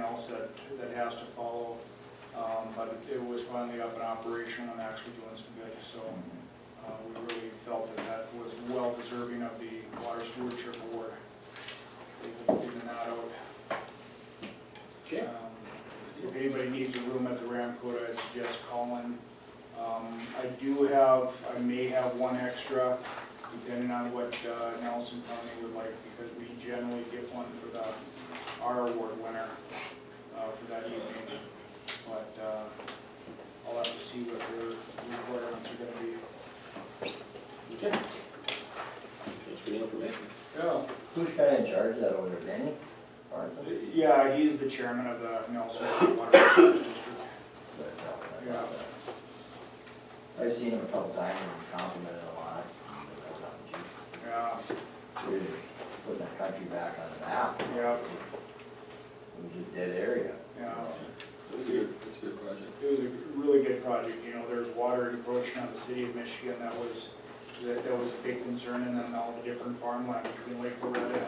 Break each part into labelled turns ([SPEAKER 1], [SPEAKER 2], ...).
[SPEAKER 1] else that, that has to follow. Um, But it was finally up and operational and actually doing some good, so uh, we really felt that that was well deserving of the Water Stewardship Award. They've been giving that out.
[SPEAKER 2] Okay.
[SPEAKER 1] Um, If anybody needs a room at the Ramcota, I suggest calling. Um, I do have, I may have one extra, depending on what uh, Nelson County would like, because we generally get one for the, our award winner uh, for that evening. But uh, I'll have to see what their requirements are gonna be.
[SPEAKER 2] Okay. Thanks for the information.
[SPEAKER 1] Yeah.
[SPEAKER 3] Who's kind of in charge of that over there, Danny? Martha?
[SPEAKER 1] Yeah, he's the chairman of the Nelson Water Resources District.
[SPEAKER 3] Yeah. I've seen him a couple times and complimented a lot.
[SPEAKER 1] Yeah,
[SPEAKER 3] Really Putting the country back on the map,
[SPEAKER 1] yeah,
[SPEAKER 3] it was a dead area.
[SPEAKER 1] yeah.
[SPEAKER 4] That's a good, that's a good project.
[SPEAKER 1] It was a really good project, you know, there's water encroaching on the city of Michigan, that was, that, that was a big concern, and then all the different farmland between Lake Loretta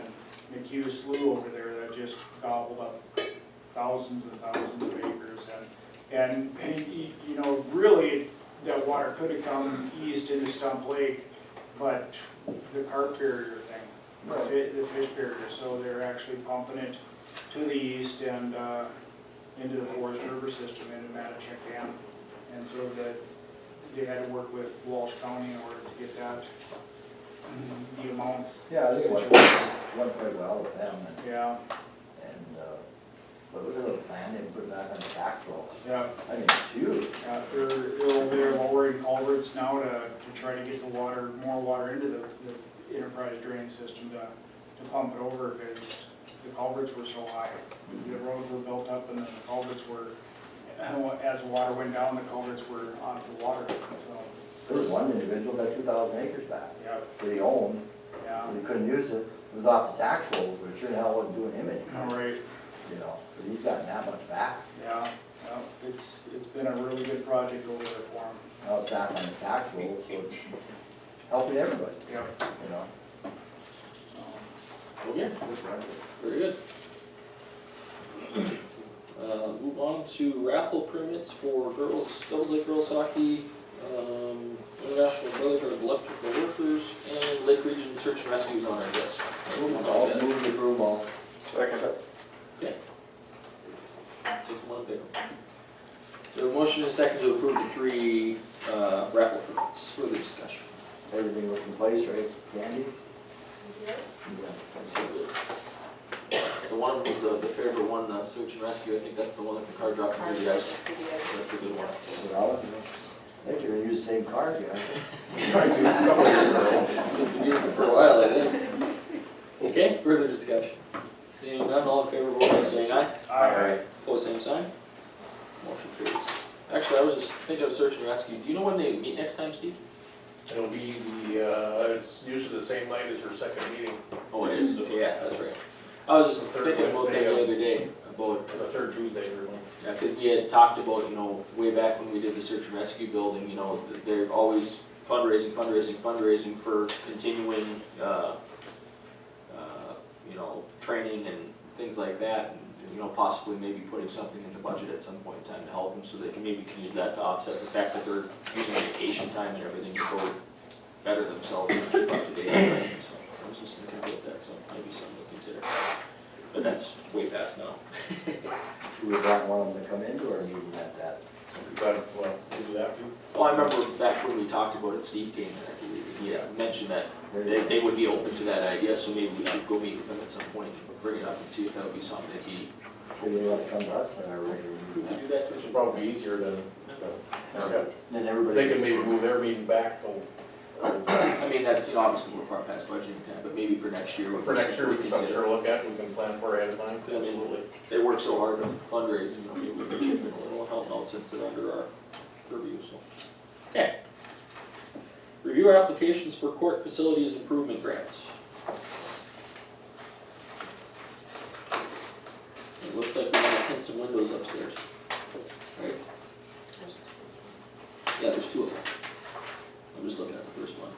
[SPEAKER 1] and McHugh Slough over there, that just gobbled up thousands and thousands of acres, and, and, y- y- you know, really, that water could have come east into Stump Lake, but the carp barrier thing, the fi- the fish barrier, so they're actually pumping it to the east and, uh, into the Forest River system into Mattocheck Dam. And so that they had to work with Walsh County in order to get that, mm, the amounts.
[SPEAKER 3] Yeah, I think it went,
[SPEAKER 1] situated.
[SPEAKER 3] went quite well with them and,
[SPEAKER 1] Yeah,
[SPEAKER 3] and, uh, but it was a little plan, they put back on the back roll.
[SPEAKER 1] yeah,
[SPEAKER 3] I mean, shoot,
[SPEAKER 1] yeah, they're, they're over there lowering culverts now to, to try to get the water, more water into the, the enterprise drain system to, to pump it over because the culverts were so high. The roads were built up and then the culverts were, as the water went down, the culverts were onto the water, so,
[SPEAKER 3] there was one individual that had two thousand acres back,
[SPEAKER 1] yeah,
[SPEAKER 3] that he owned,
[SPEAKER 1] yeah.
[SPEAKER 3] but he couldn't use it, it was off the tax rolls, but sure the hell wasn't doing him any,
[SPEAKER 1] All right,
[SPEAKER 3] you know, but he's gotten that much back.
[SPEAKER 1] yeah, yeah, it's, it's been a really good project over there for him.
[SPEAKER 3] Now it's back on the tax rolls, so it's helping everybody,
[SPEAKER 1] Yep.
[SPEAKER 3] you know?
[SPEAKER 2] Okay, Oh, very good. Uh, move on to raffle permits for girls, Devils Lake girls hockey, um, International Brotherhood of Electrical Workers, and Lake Region Search and Rescue is on our list.
[SPEAKER 4] Oh,
[SPEAKER 3] I'll move the room all.
[SPEAKER 2] Take them on pick 'em. So a motion and a second to approve the three, uh, raffle permits, further discussion.
[SPEAKER 3] Everything was in place, right, Candy?
[SPEAKER 5] Yes.
[SPEAKER 2] The one was the, the favorite one, uh, search and rescue, I think that's the one that the car dropped into the ice, that's a good one.
[SPEAKER 3] Well, I think you're gonna use the same card, yeah.
[SPEAKER 2] Been using it for a while, I think. Okay, further discussion. Seeing none, all in favor, vote by saying aye.
[SPEAKER 1] Alright.
[SPEAKER 2] Pose same sign. Motion carries. Actually, I was just thinking of search and rescue. Do you know when they meet next time, Steve?
[SPEAKER 6] It'll be the, uh, it's usually the same night as your second meeting,
[SPEAKER 2] Oh, it is. Yeah, that's right. I was just
[SPEAKER 6] Third
[SPEAKER 2] thinking about that
[SPEAKER 6] Wednesday,
[SPEAKER 2] the
[SPEAKER 6] yeah.
[SPEAKER 2] other day, about,
[SPEAKER 6] the third Tuesday every month.
[SPEAKER 2] yeah, cause we had talked about, you know, way back when we did the search and rescue building, you know, th- they're always fundraising, fundraising, fundraising for continuing, uh, uh, you know, training and things like that, and, you know, possibly maybe putting something in the budget at some point in time to help them, so they can, maybe can use that to offset the fact that they're using vacation time and everything to go better themselves and keep up to date on training, so I was just thinking about that, so maybe something to consider. But that's way past now.
[SPEAKER 3] We would not want them to come into our meeting at that.
[SPEAKER 6] But, well, we do that too.
[SPEAKER 2] Well, I remember back when we talked about it, Steve came, and I believe, and he had mentioned that they, they would be open to that idea, so maybe we could go meet with them at some point and bring it up and see if that would be something that he
[SPEAKER 3] They would want to come to us at our regular
[SPEAKER 2] We
[SPEAKER 3] meeting.
[SPEAKER 2] could do that,
[SPEAKER 6] Which
[SPEAKER 2] Chris.
[SPEAKER 6] would probably be easier than, yeah.
[SPEAKER 3] Then everybody.
[SPEAKER 6] They can maybe move their meeting back till, uh,
[SPEAKER 2] I mean, that's, you know, obviously we're far past budgeting time, but maybe for next year. we
[SPEAKER 6] for next year, we can
[SPEAKER 2] consider-
[SPEAKER 6] sure look at, we can plan for ahead of time.
[SPEAKER 2] Yeah. They work so hard on fundraising, you know, maybe we can chip in a little help out since they're under our purview, so. Okay. Review our applications for court facilities improvement grants. It looks like we wanna tint some windows upstairs. Right? Yeah, there's two of them. I'm just looking at the first one.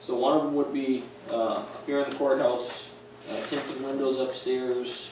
[SPEAKER 2] So one of them would be, uh, here in the courthouse, uh, tinted windows upstairs,